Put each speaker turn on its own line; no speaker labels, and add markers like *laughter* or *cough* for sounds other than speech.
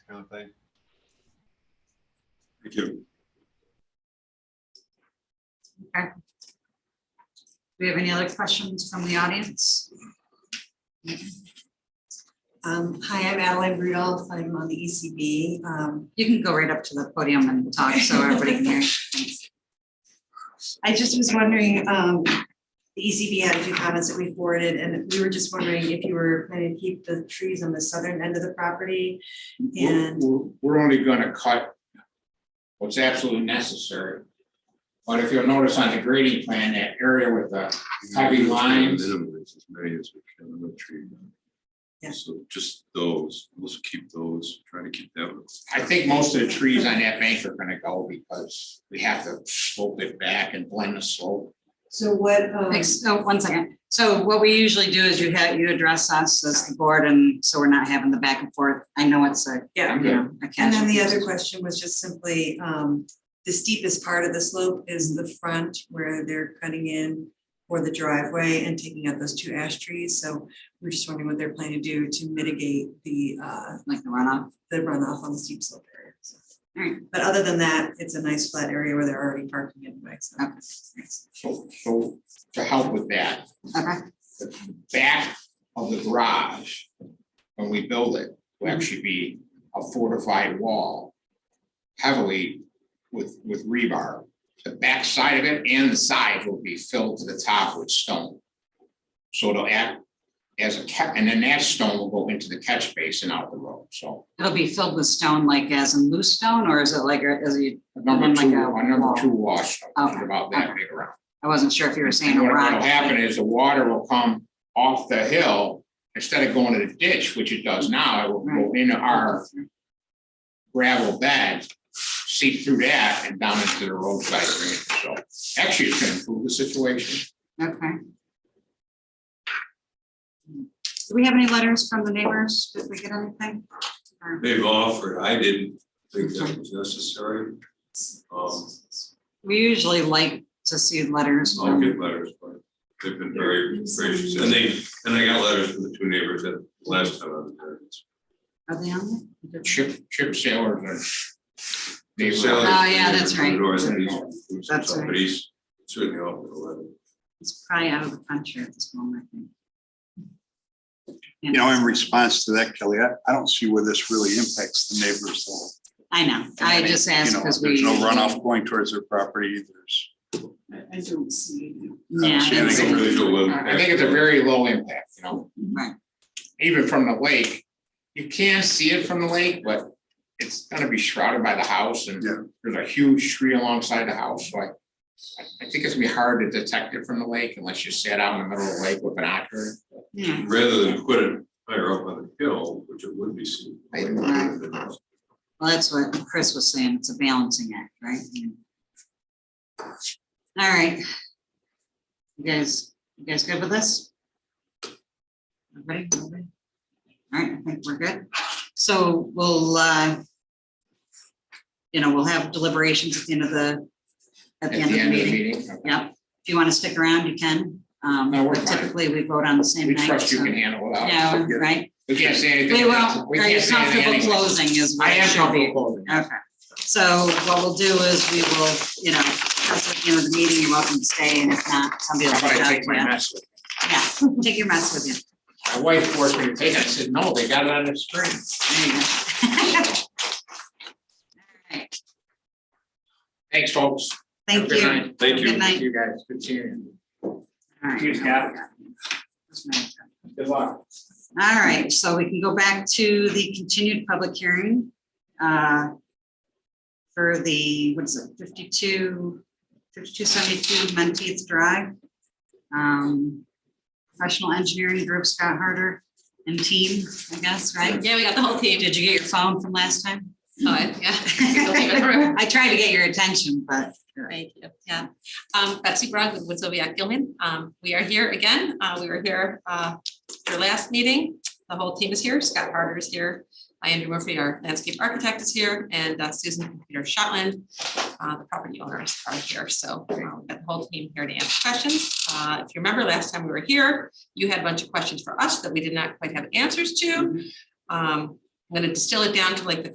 other thing.
Thank you.
Do we have any other questions from the audience?
Um, hi, I'm Adeline Rudolph. I'm on the ECB. Um,
You can go right up to the podium and talk so everybody can hear. you. Thanks.
I just was wondering, um, the ECB had a few comments that we forwarded and we were just wondering if you were planning to keep the trees on the southern end of the property.
Mm-hmm.
We're-
And
We're we're only gonna cut what's absolutely necessary. But if you'll notice on the grading plan, that area with the, Heavy lines.
Minimize as many as we can on the tree.
Yeah.
So just those, let's keep those, try to keep that. one.
I think most of the trees on that bank are gonna go because we have to slope it back and blend the slope.
so what, um,
Thanks. Oh, one second. So what we usually do is you have, you address us as the board and so we're not having the back and forth. I know it's a,
yeah.
you know, a
And then the
casual-
other question was just simply, um, the steepest part of the slope is the front where they're cutting in for the driveway and taking out those two ash trees. So we're just wondering what they're planning to do to mitigate the, uh,
Like the runoff.
the runoff on the steep slope area. so.
Alright.
But other than that, it's a nice flat area where they're already parking anyway, so.
Okay.
So, so to help with that,
Okay,
the back of the garage, when we build it, will
Mm-hmm.
actually be a fortified wall heavily with, with rebar. The back side of it and the side will be filled to the top with stone. So it'll act as a ca- and then that stone will go into the catch basin out the road, so.
it'll be filled with stone like as in loose stone or is it like, a- is it?
Number
Like
two,
a
a number
wall.
two wash,
Okay,
about that
okay.
big around.
I wasn't sure if you were saying a
And what-
rock.
What'll happen is the water will come off the hill, instead of going to the ditch, which it does now, it will go into our gravel bed, seep through that and down into the roadside drainage, so actually it's gonna improve the situation.
Okay. Do we have any letters from the neighbors? Did we get anything? Or
They've offered, I didn't think that was necessary. Um,
We usually like to see letters.
I'll
from-
get letters, but they've been very gracious, and they, and I got letters from the two neighbors that last time I was there.
Are they on there?
Chip, chip sailors are. They
Sally's
Oh, yeah, that's right.
Doors and he's,
That's right.
but he's certainly offered a letter.
It's probably out of the country at this moment, I think.
You know, in response to that, Kelly, I, I don't see where this really impacts the neighbors though.
I know. I just
You
asked
know,
because
there's
we.
no runoff going towards their property. There's,
I don't see.
I don't
Yeah.
see
I don't
anything
see-
really to look
I think it's a very low impact, you know,
Right,
even from the lake. You can see it from the lake, but it's gonna be shrouded by the house and
Yeah.
there's a huge tree alongside the house, so I. I- I think it's gonna be hard to detect it from the lake unless you sat out in the middle of the lake with an ocular.
yeah.
Rather than put it higher up on the hill, which it would be seen.
I
way
know.
better than-
Well, that's what Chris was saying. It's a balancing act, right? All right. You guys, you guys good with this? Everybody? Everybody? All right, I think we're good. So we'll, uh, you know, we'll have deliberations at the end of the, at the end of the meeting.
okay.
Yep. If you want to stick around, you can. Um,
No, we're
but
fine.
Typically, we vote on the same
We
night.
trust you
so-
can handle it out.
Yeah, right?
We can't say anything.
We won't,
We
are
can't
you
say anything
comfortable
anyway.
closing is what
I
it
am
should
comfortable
be.
closing.
Okay, so what we'll do is we will, you know, that's at the end of the meeting, you're welcome to stay, and if not, somebody will
How about
reach
I
out
take my
to
mess with me?
you. Yeah, *laughs* take your mess with you.
My wife forced me to take it. I said, no, they got it on the screen.
There you go. *laughs* All right.
Thanks, folks. Have a
Thank
good
you.
night.
Have a Good night.
You guys, good seeing
All right.
Cheers, Cap.
That's my-
you. Good luck.
All right, so we can go back to the continued public hearing. uh, For the, what is it, 52, 5272 Menteith Drive. Um, Professional engineering group, Scott Harder and team, I guess, right?
Yeah, we got the whole team.
Did you get your phone from last time?
Oh, I- *laughs* yeah.
*laughs* I tried to get your attention, but.
Thank you. Yeah. Um, Betsy Brog with Woodsovia Gilman. Um, we are here again. Uh, we were here, uh, your last meeting. The whole team is here. Scott Harder is here. Andrew Murphy, our landscape architect is here and uh, Susan and Peter Shotland, uh, the property owners are here. So uh, we've got the whole team here to answer questions. Uh, if you remember last time we were here, you had a bunch of questions for us that we did not quite have answers to. Um, I'm going to distill it down to like the